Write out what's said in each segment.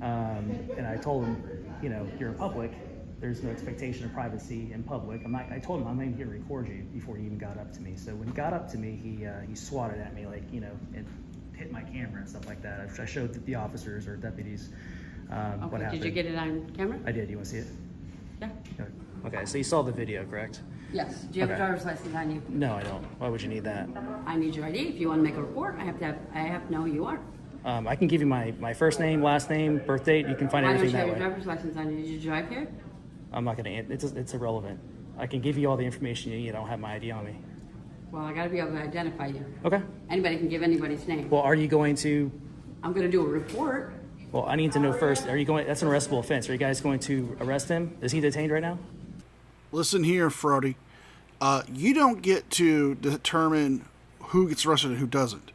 Um, and I told him, you know, you're in public. There's no expectation of privacy in public. I'm not, I told him I'm not even going to record you before he even got up to me. So when he got up to me, he uh, he swatted at me like you know and hit my camera and stuff like that. I, I showed the officers or deputies um, what Okay, happened. did you get it on camera? I did. You want to see it? Yeah. Okay. So you saw the video, correct? Yes, do you have a Okay. driver's license on you? No, I don't. Why would you need that? I need your ID, if you wanna make a report, I have to have, I have to know who you are. Um, I can give you my, my first name, last name, birth date. You can find Why don't everything you have that your way. driver's license on you, did you drive here? I'm not gonna. an- It's it's irrelevant. I can give you all the information you need. I don't have my ID on me. Well, I gotta be able to identify you, Okay. anybody can give anybody's name. Well, are you going to? I'm gonna do a report, Well, I need to know first. Are you going? That's an arrestable offense. Are you guys going to arrest him? Is he detained right now? Listen here, Frody. Uh, you don't get to determine who gets arrested and who doesn't.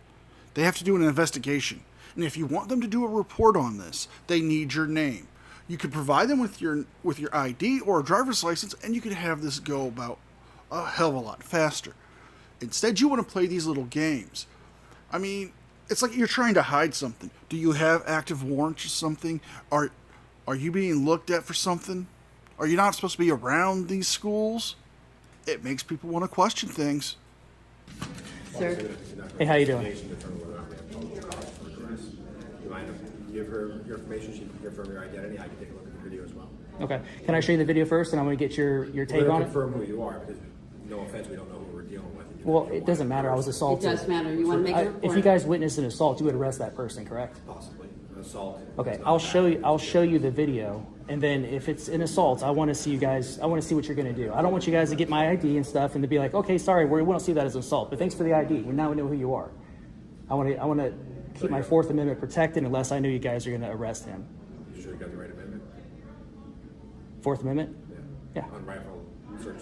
They have to do an investigation. And if you want them to do a report on this, they need your name. You could provide them with your with your ID or a driver's license, and you could have this go about a hell of a lot faster. Instead, you want to play these little games. I mean, it's like you're trying to hide something. Do you have active warrants or something? Are are you being looked at for something? Are you not supposed to be around these schools? It makes people want to question things. sir. Hey, how you doing? information to determine whether or not we have probable cause for arrest. You mind if you give her your information, she can give her your identity, I can take a look at the video as well. Okay. Can I show you the video first, and I'm gonna get your your We're take gonna on it? confirm who you are, because no offense, we don't know who we're dealing with. Well, it doesn't matter. I was It assaulted. does matter, you wanna make I- a report? if you guys witnessed an assault, you would arrest that person, correct? Possibly, assault. Okay, It's not I'll bad. show you. I'll show you the video, and then if it's an assault, I want to see you guys. I want to see what you're going to do. I don't want you guys to get my ID and stuff, and to be like, okay, sorry, we won't see that as an assault, but thanks for the ID. We now know who you are. I want to. I want to keep my Fourth Amendment protected unless I know you guys are going to arrest him. You sure you got the right amendment? Fourth Amendment. Yeah. Unlawful search,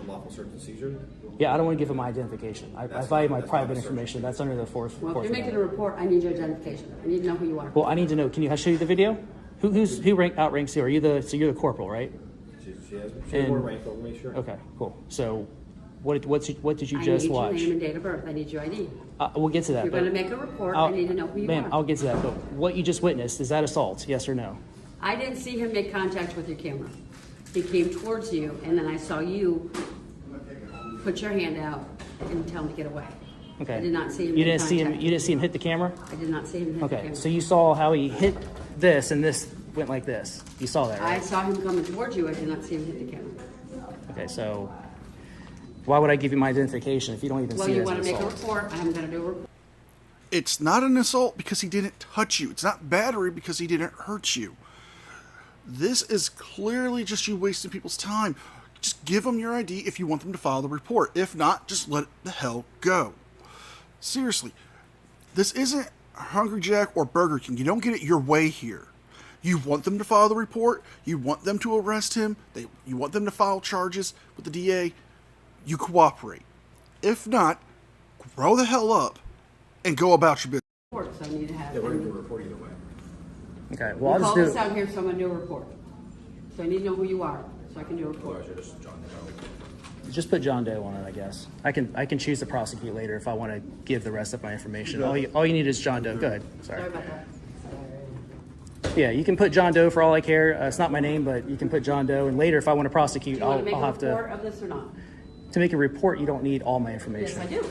unlawful search and seizure? Yeah, I don't want to give him my identification. I, I That's- value my that's not a private search. information. That's under the Fourth. Well, if fourth you're making a Amendment. report, I need your identification, I need to know who you are. Well, I need to know. Can you show you the video? Who, who's who rank outranks you? Are you the so you're the corporal, right? She, she has, she has And- more rank, but make sure. Okay, cool. So, what what's what did you I need just your watch? name and date of birth, I need your ID. Uh, we'll get to that. You're but gonna make a report, I'll- I need to know who you Ma'am, I'll are. get to that, but what you just witnessed, is that assault, yes or no? I didn't see him make contact with your camera. He came towards you, and then I saw you put your hand out and tell him to get away. Okay. I did not see him You make didn't see him, contact. you didn't see him hit the camera? I did not see him hit the Okay, camera. so you saw how he hit this and this went like this? You saw that, I right? saw him coming towards you, I did not see him hit the camera. Okay, so why would I give you my identification if you don't even Well, see you it as an wanna make a assault? report, I'm gonna do a report. It's not an assault because he didn't touch you. It's not battery because he didn't hurt you. This is clearly just you wasting people's time. Just give them your ID if you want them to file the report. If not, just let the hell go. Seriously, this isn't Hungry Jack or Burger King. You don't get it your way here. You want them to file the report. You want them to arrest him. They, you want them to file charges with the DA. You cooperate. If not, grow the hell up and go about your business. so I need to have. Yeah, we're gonna do a report either way. Okay, well, I'll just Call do. this out here, so I'm gonna do a report. So I need to know who you are, so I can do a report. Otherwise, you're just John Doe. Just put John Doe on it, I guess. I can, I can choose to prosecute later if I want to give the rest of my information. All you, all you need is John Doe. Go ahead, Sorry sorry. about that. Yeah, you can put John Doe for all I care. Uh, it's not my name, but you can put John Doe. And later, if I want to prosecute, Do you wanna I'll, make I'll a have to. report of this or not? To make a report, you don't need all my Yes, information. I do.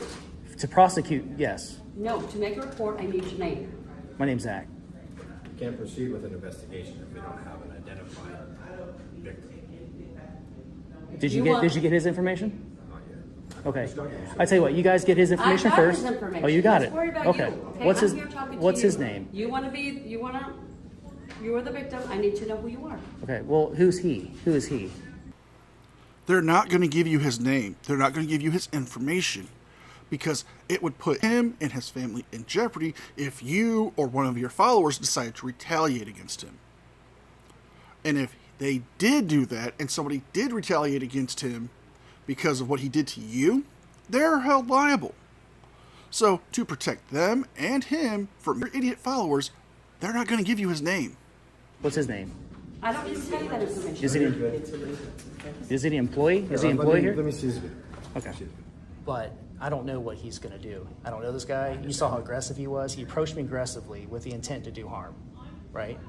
To prosecute, yes. No, to make a report, I need your name. My name's Zach. You Can't proceed with an investigation if we don't have an identified victim. Did you, You get want- did you get his information? Not yet. Okay. I tell you what, you guys get his information I got first. his information. Oh, you got Let's it. Worry about okay. You. What's I'm his Here talking to What's you. his name? You want to be? You want to? You are the victim. I need to know who you are. Okay. Well, who's he? Who is he? They're not going to give you his name. They're not going to give you his information because it would put him and his family in jeopardy if you or one of your followers decided to retaliate against him. And if they did do that and somebody did retaliate against him because of what he did to you, they're held liable. So, to protect them and him from your idiot followers, they're not going to give you his name. What's his name? I don't need to tell you that information. Is he is he an employee? Is he an Uh, Let employee me- Let here? me see this video. Okay. But I don't know what he's gonna do. I don't know this guy. You saw how aggressive he was. He approached me aggressively with the intent to do harm, right?